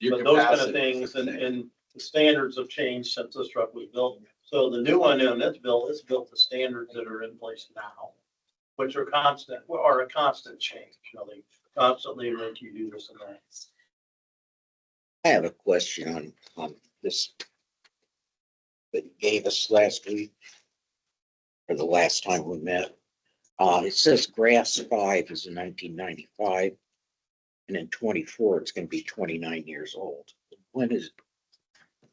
your But those kind of capacity. things and, and the standards have changed since this truck was built. So the new one in this bill is built to standards that are in place now, which are constant, are a constant change, you know, they constantly make you do this and that. I have a question on, on um, this that you gave us last week or the last time we met. Uh, it says grass five is in nineteen ninety-five. And in twenty-four, it's gonna be twenty-nine years old. When is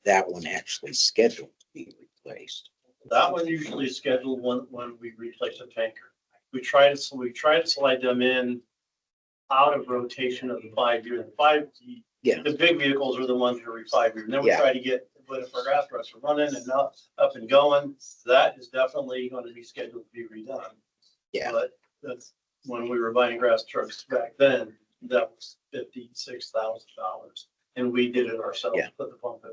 that one actually scheduled to be replaced? That one usually is scheduled when, when we replace a tanker. We try to, we try to slide them in out of rotation of the five year, the five, Yeah. the big vehicles are the ones that are five year. And then we Yeah. try to get, but if our gas trucks are running and up, up and going, that is definitely going to be scheduled to be redone. Yeah. But that's, when we were buying grass trucks back then, that was fifty-six thousand dollars. And we did it ourselves, Yeah. put the pump in.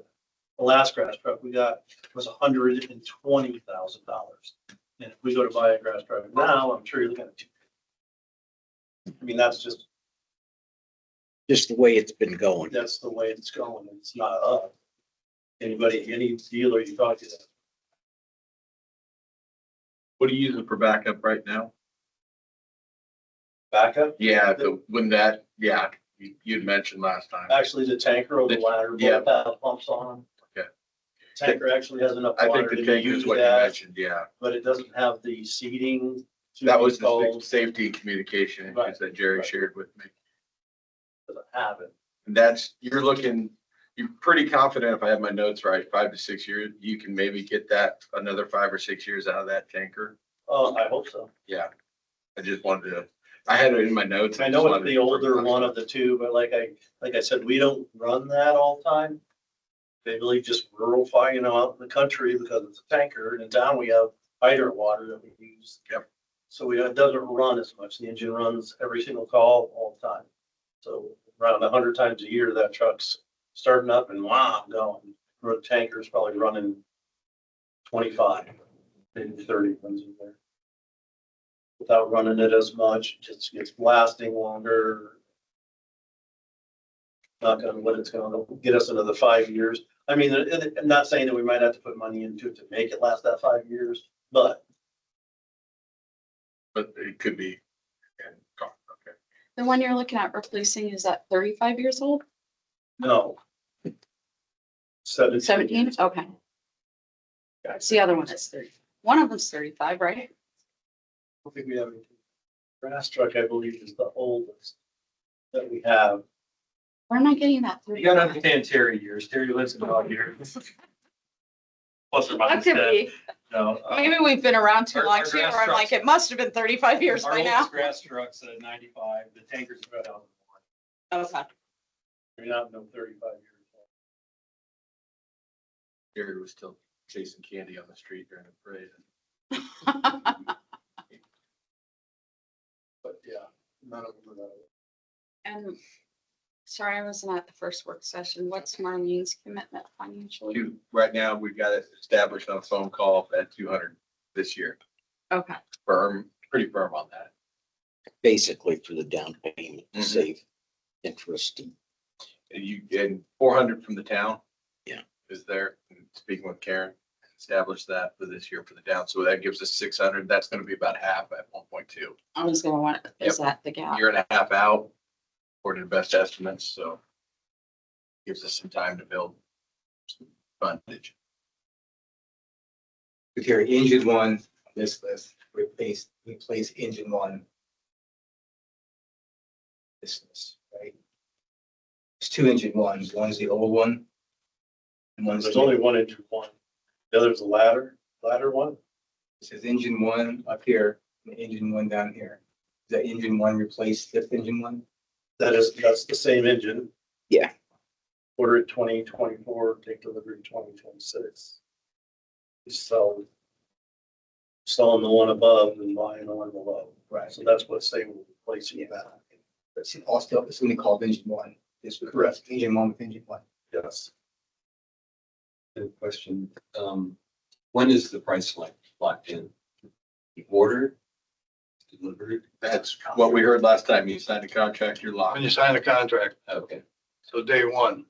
The last grass truck we got was hundred and twenty thousand dollars. And if we go to buy a grass driver now, I'm sure you're looking at two. I mean, that's just, Just the way it's been going. that's the way it's going. It's not up. Anybody, any dealer you talk to, What are you using for backup right now? backup, Yeah, the, when that, yeah, you, you'd mentioned last time. actually the tanker or the ladder, Yeah. both have pumps on. them. Okay. Tanker actually has enough I water think the to tank is use what you that, mentioned, yeah. but it doesn't have the seating. to That was the install, sa- safety and communication Right, issues that Jerry right. shared with me. Doesn't have it. And that's, you're looking, you're pretty confident, if I have my notes right, five to six years, you can maybe get that, another five or six years out of that tanker. Oh, I hope so. Yeah. I just wanted to, I had it in my notes. I just know it's wanted the to- older one of the two, but like I, like I said, we don't run that all the time. They really just rural fire, you know, out in the country because it's a tanker and in town we have hydrant water that we use. Yep. So we, it doesn't run as much. The engine runs every single call all the time. So around a hundred times a year, that truck's starting up and wow, going. Road tanker's probably running twenty-five, maybe thirty runs in there without running it as much, just gets lasting longer. Not gonna, what it's gonna get us another five years. I mean, and- and I'm not saying that we might have to put money into it to make it last that five years, but But it could be. and gone, okay. The one you're looking at replacing, is that thirty-five years old? no. Seventeen. Seventeen? Okay. It's the other one that's thirty. One of them's thirty-five, right? I don't think we have any. Grass truck, I believe, is the oldest that we have. Where am I getting that You gotta thirty-five? understand Terry years. Terry lives in dog years. Plus or That minus could that, be. no. uh, Maybe we've been around too Our- long our too, or grass I'm trucks- like, it must have been thirty-five years Our by now. oldest grass truck's at ninety-five, the tanker's about out. Okay. We're not no thirty-five years. old. Jerry was still chasing candy on the street during the parade. But yeah, none of them are that old. And, sorry, I wasn't at the first work session. What's Marlene's commitment financially? Two, right now, we've got it established on a phone call at two hundred this year. Okay, Firm, pretty firm on that. Basically for the down payment to Mhm. save interest. and- And you, and four hundred from the town. Yeah. Is there, and speaking with Karen, established that for this year for the down, so that gives us six hundred, that's gonna be about half at one point two. I was gonna want, is that the gap? Year and a half out, according to best estimates, so. Gives us some time to build some fundage. With your engine one, on this list, replace, replace engine one. This list, right? It's two engine ones, one's the old one. And one's, There's the only one engine one. The other's a ladder, ladder one. it says engine one up here, and engine one down here. Does that engine one replace this engine one? That is, that's the same engine. Yeah. Order it twenty twenty-four, take delivery twenty twenty-six. So. Selling the one above and buying the one below. Right. So that's what's saying we're replacing that. But It's all still, it's only called engine one. This would Correct. engine one with engine one. Yes. Good question. Um, when is the price locked, locked in? Order? Delivered? That's what we heard last time, you signed a contract, you're locked. When you sign a contract, Okay, so day one,